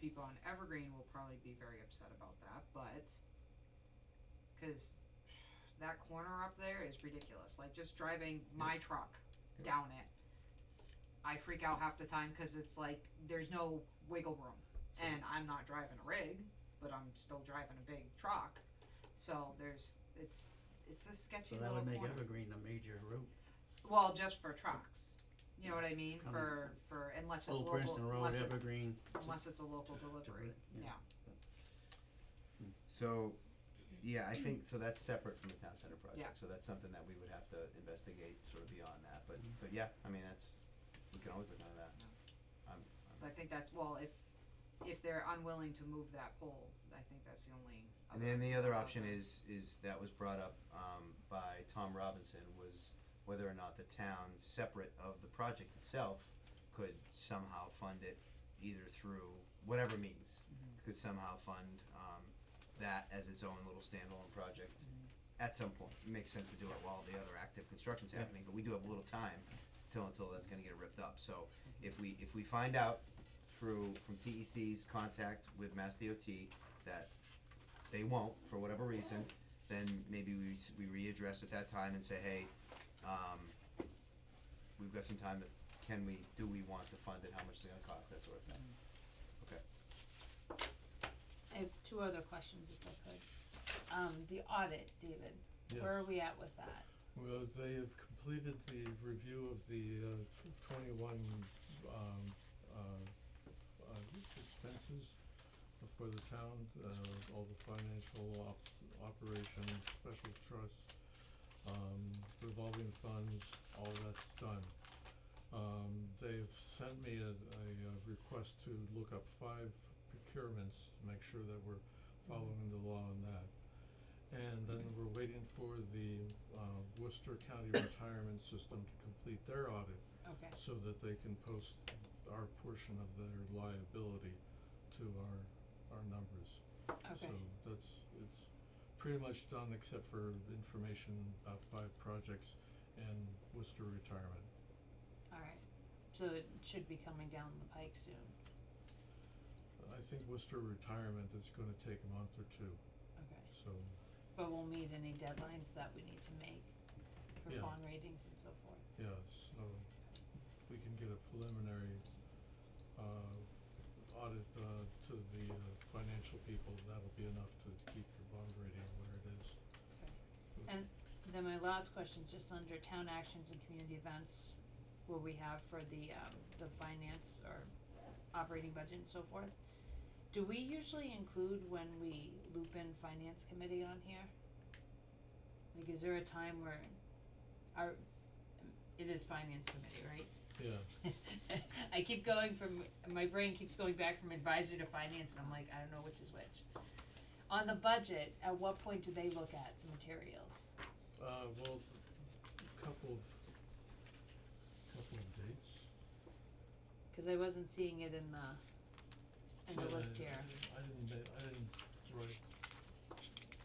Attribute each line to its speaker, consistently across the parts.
Speaker 1: people on Evergreen will probably be very upset about that, but cuz that corner up there is ridiculous. Like just driving my truck
Speaker 2: Yeah.
Speaker 1: down it. I freak out half the time cuz it's like there's no wiggle room
Speaker 2: So
Speaker 1: and I'm not driving a rig, but I'm still driving a big truck. So there's it's it's a sketchy
Speaker 3: So that
Speaker 1: little
Speaker 3: would make
Speaker 1: corner.
Speaker 3: Evergreen a major route.
Speaker 1: Well, just for trucks. You know what I mean?
Speaker 3: Coming
Speaker 1: For for unless it's
Speaker 3: Old
Speaker 1: local
Speaker 3: Oh, Princeton Road,
Speaker 1: unless it's
Speaker 3: Evergreen.
Speaker 1: unless it's a local delivery.
Speaker 3: yeah.
Speaker 1: Yeah.
Speaker 2: So, yeah, I think, so that's separate from the town center
Speaker 1: Yeah.
Speaker 2: project, so that's something that we would have to investigate sort of beyond that, but, but yeah, I mean, that's, we can always look into that. I'm,
Speaker 1: So I
Speaker 2: I'm,
Speaker 1: think that's well if if they're unwilling to move that pole, I think that's the only
Speaker 2: and then the other option
Speaker 1: Okay.
Speaker 2: is, is that was brought up, um, by Tom Robinson, was whether or not the town, separate of the project itself, could somehow fund it either through whatever means, could somehow fund, um, that as its own little standalone project. at some point. It makes sense to do it while the other active construction's
Speaker 3: Yeah.
Speaker 2: happening, but we do have a little time till until that's gonna get ripped up. So if we if we find out through from TEC's contact with Mass DOT that they won't for whatever reason, then maybe we s- we readdress at that time and say, hey, um, we've got some time. To, can we? Do we want to fund it? How much is it gonna cost? That sort of thing.
Speaker 4: Mm.
Speaker 2: Okay.
Speaker 5: I have two other questions if I could. Um, the audit, David, where are
Speaker 4: Yes.
Speaker 5: we at with that?
Speaker 4: Well, they have completed the review of the uh, twenty-one um, uh, uh, expenses for the town, uh, all the financial op- operations, special trusts, um, revolving funds, all that's done. Um, they've sent me a, a uh, request to look up five procurements to make sure that we're
Speaker 5: Mm-hmm.
Speaker 4: following the law on that. And then we're waiting for the uh, Worcester County Retirement System to complete their audit
Speaker 5: Okay,
Speaker 4: so that they can post our portion of their liability to our, our numbers.
Speaker 5: okay,
Speaker 4: So that's, it's pretty much done except for information about five projects and Worcester Retirement.
Speaker 5: alright. So it should be coming down the pike soon.
Speaker 4: I think Worcester Retirement is gonna take a month or two,
Speaker 5: Okay,
Speaker 4: so,
Speaker 5: but we'll meet any deadlines that we need to make for
Speaker 4: Yeah.
Speaker 5: bond ratings and so forth.
Speaker 4: yeah, so we can get a preliminary uh audit uh to the uh financial people, that'll be enough to keep your bond rating where it is.
Speaker 5: And then my last question, just under town actions and community events, where we have for the um the finance or operating budget and so forth. Do we usually include when we loop in finance committee on here? Like, is there a time where our, it is finance committee, right?
Speaker 4: Yeah,
Speaker 5: I keep going from, my brain keeps going back from advisor to finance, and I'm like, I don't know which is which. On the budget, at what point do they look at the materials?
Speaker 4: uh well, a couple of, couple of dates.
Speaker 5: Cause I wasn't seeing it in the, in
Speaker 4: Yeah,
Speaker 5: the list
Speaker 4: I-
Speaker 5: here,
Speaker 4: I didn't, ma- I didn't write,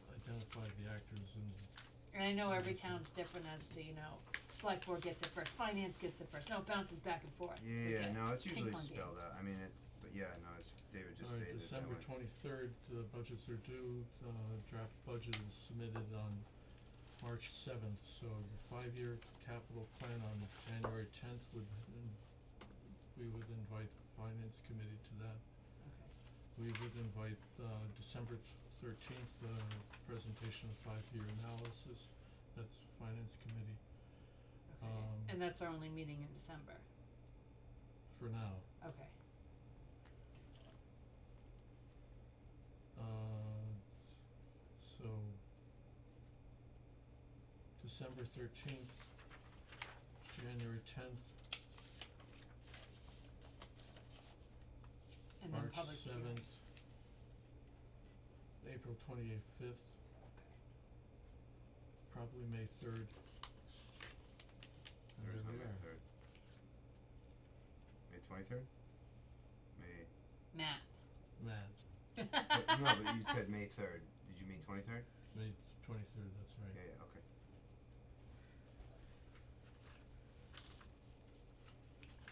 Speaker 4: identify the actors and
Speaker 5: and I know every town's different as to, you know, select board gets it first, finance gets it first, no, it bounces back and forth, it's
Speaker 2: Yeah,
Speaker 5: like a
Speaker 2: no, it's
Speaker 5: ping
Speaker 2: usually
Speaker 5: pong game.
Speaker 2: spelled out. I mean, it, but yeah, no, it's David just
Speaker 4: All right,
Speaker 2: stated it that
Speaker 4: December
Speaker 2: way.
Speaker 4: twenty-third, the budgets are due, uh, draft budget is submitted on March seventh, so the five-year capital plan on January tenth would, in- we would invite finance committee to that.
Speaker 5: Okay.
Speaker 4: We would invite, uh, December thirteenth, the presentation of five-year analysis, that's finance committee
Speaker 5: Okay,
Speaker 4: Um,
Speaker 5: and that's our only meeting in December,
Speaker 4: for now.
Speaker 5: okay,
Speaker 4: Uh, so December thirteenth, January tenth,
Speaker 5: and then
Speaker 4: March
Speaker 5: public hearing.
Speaker 4: seventh, April twenty-eighth, fifth, probably May third. And
Speaker 2: There is no
Speaker 4: there we
Speaker 2: May
Speaker 4: are.
Speaker 2: third. May twenty third? May
Speaker 5: Matt.
Speaker 4: Matt,
Speaker 2: but, no, but you said May third. Did you mean twenty third?
Speaker 4: May twenty-third, that's
Speaker 2: Yeah,
Speaker 4: right.
Speaker 2: yeah, okay.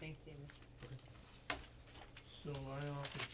Speaker 5: Thanks, David.
Speaker 4: So I offered